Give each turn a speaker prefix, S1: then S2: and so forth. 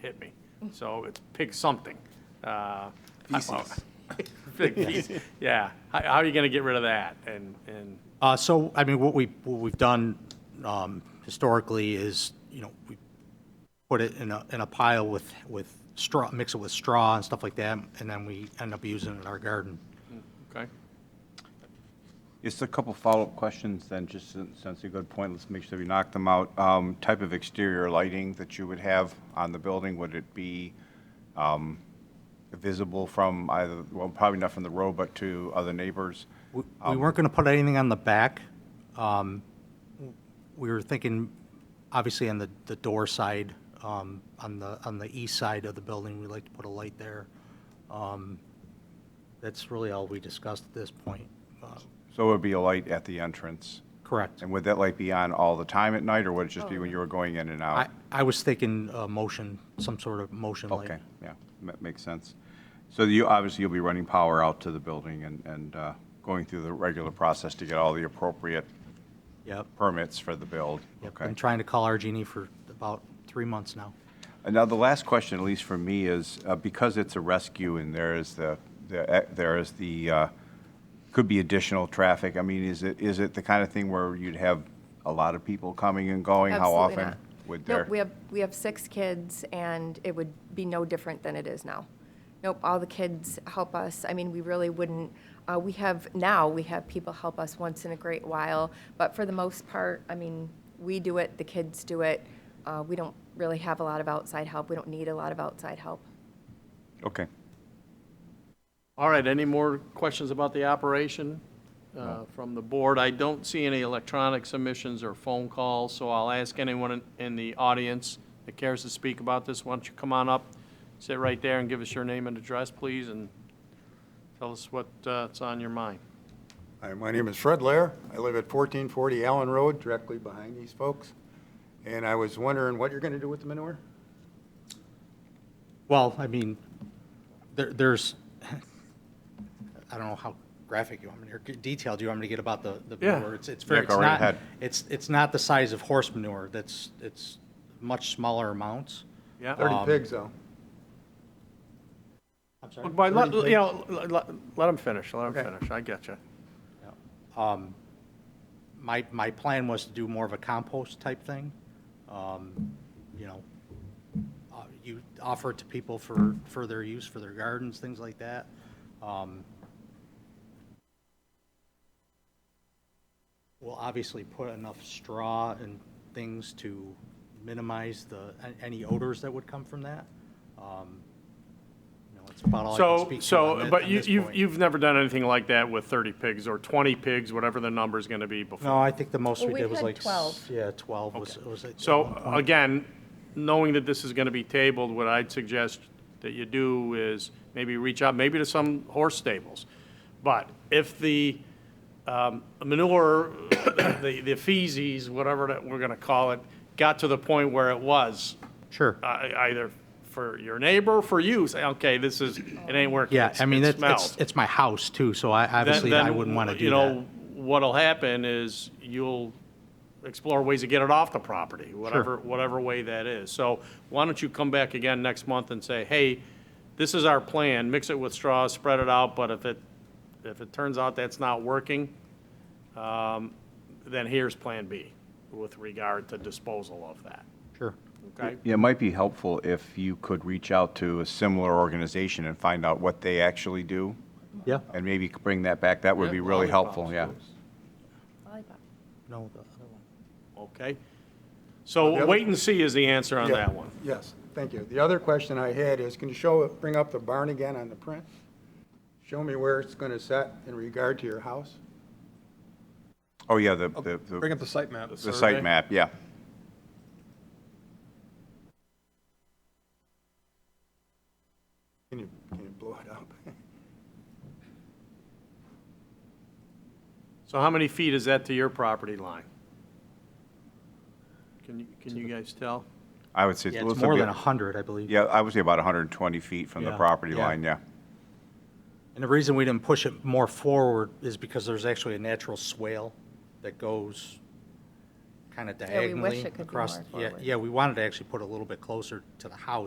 S1: hit me. So it's pig something. Uh, I-
S2: Feces.
S1: Pig feces, yeah. How, how are you gonna get rid of that? And, and,
S3: Uh, So, I mean, what we, what we've done um, historically is, you know, we put it in a, in a pile with, with straw, mix it with straw and stuff like that, and then we end up using it in our garden.
S1: okay,
S2: Just a couple follow-up questions then, just since since a good point, let's make sure we knock them out. Um, Type of exterior lighting that you would have on the building, would it be um, visible from either, well, probably not from the road, but to other neighbors?
S3: We we weren't going to put anything on the back. Um, We were thinking, obviously, on the, the door side, um, on the, on the east side of the building, we'd like to put a light there. Um, That's really all we discussed at this point. Uh,
S2: So it would be a light at the entrance?
S3: Correct.
S2: And would that light be on all the time at night, or would it just be when you were going in and
S3: I,
S2: out?
S3: I was thinking uh, motion, some sort of motion light.
S2: Okay, yeah, that makes sense. So you, obviously, you'll be running power out to the building and, and uh, going through the regular process to get all the appropriate
S3: Yep.
S2: permits for the build.
S3: Yep.
S2: Okay.
S3: Been trying to call Argini for about three months now.
S2: And now the last question, at least for me, is uh, because it's a rescue and there is the, the- eh, there is the, uh, could be additional traffic. I mean, is it, is it the kind of thing where you'd have a lot of people coming and going?
S4: Absolutely
S2: How
S4: not.
S2: often would
S4: Nope,
S2: there?
S4: we have, we have six kids, and it would be no different than it is now. Nope, all the kids help us. I mean, we really wouldn't, uh, we have, now, we have people help us once in a great while, but for the most part, I mean, we do it, the kids do it. Uh, We don't really have a lot of outside help. We don't need a lot of outside help.
S2: Okay.
S1: all right, any more questions about the operation uh, from the board? I don't see any electronic submissions or phone calls, so I'll ask anyone in- in the audience that cares to speak about this, why don't you come on up, sit right there and give us your name and address, please, and tell us what's on your mind.
S5: Hi, my name is Fred Lair. I live at 1440 Allen Road, directly behind these folks. And I was wondering what you're going to do with the manure?
S3: Well, I mean, there, there's, I don't know how graphic you want me, to- or detailed you want me to get about the, the
S1: Yeah.
S3: manure. It's, it's very,
S2: Yeah,
S3: it's
S2: go right
S3: not,
S2: ahead.
S3: it's, it's not the size of horse manure. That's, it's much smaller amounts.
S1: Yeah?
S5: 30
S3: Um,
S5: pigs, though.
S3: I'm sorry.
S1: But, let-
S5: Thirty
S1: you know, let- let, let 'em finish, let 'em
S5: Okay.
S1: finish, I get you.
S3: my, my plan was to do more of a compost type thing. Um, You know, uh, you offer it to people for, for their use, for their gardens, things like that. Um, We'll obviously put enough straw and things to minimize the, a- any odors that would come from that. Um, You know, it's about all I can
S1: So,
S3: speak to on
S1: so,
S3: thi-
S1: but
S3: on
S1: you,
S3: this
S1: you've,
S3: point.
S1: you've never done anything like that with 30 pigs or 20 pigs, whatever the number's going to be before.
S3: No, I think the most we
S4: Well,
S3: did
S4: we've
S3: was
S4: had
S3: like. s-
S4: 12.
S3: Yeah, 12 was, was. at- at
S1: So
S3: one point.
S1: again, knowing that this is going to be tabled, what I'd suggest that you do is maybe reach out, maybe to some horse stables. But if the um, manure, the, the feces, whatever that we're going to call it, got to the point where it was
S3: Sure.
S1: uh, either for your neighbor, for you, say, okay, this is, it ain't working.
S3: Yeah,
S1: It's-
S3: I mean,
S1: it
S3: it's, it's,
S1: smells.
S3: it's my house too, so I,
S1: Then-
S3: obviously, I
S1: then,
S3: wouldn't want to do
S1: You know,
S3: that.
S1: what'll happen is you'll explore ways to get it off the property, whatever, whatever way that is. So why don't you come back again next month and say, hey, this is our plan, mix it with straw, spread it out, but if it, if it turns out that's not working, um, then here's Plan B with regard to disposal of that,
S3: Sure.
S1: okay?
S2: Yeah, it might be helpful if you could reach out to a similar organization and find out what they actually do,
S3: Yeah,
S2: and maybe bring that back. That would be
S1: Yeah,
S2: really
S1: lollipops,
S2: helpful, yeah.
S1: yes.
S3: no, the other one.
S1: Okay?
S5: The
S1: So
S5: other-
S1: wait and see is the answer on
S5: Yeah,
S1: that one.
S5: Yes, thank you. The other question I had is, can you show, bring up the barn again on the print? Show me where it's going to set in regard to your house?
S2: Oh, yeah, the, the,
S6: Bring
S2: the-
S6: up the site map.
S2: the
S1: Survey.
S2: site map, yeah.
S5: Can you, can you blow it up?
S1: So how many feet is that to your property line? Can you, can you guys tell?
S2: I would say.
S3: Yeah,
S2: let's
S3: it's more
S2: look
S3: than
S2: at-
S3: 100, I believe.
S2: Yeah, I would say about 120 feet from the
S3: Yeah.
S2: property
S3: Yeah.
S2: line, yeah.
S3: And the reason we didn't push it more forward is because there's actually a natural swale that goes kind of
S4: Yeah, we wish
S3: diagonally
S4: it could be
S3: across.
S4: more
S3: Yeah,
S4: forward.
S3: yeah, we wanted to actually put a little bit closer to the house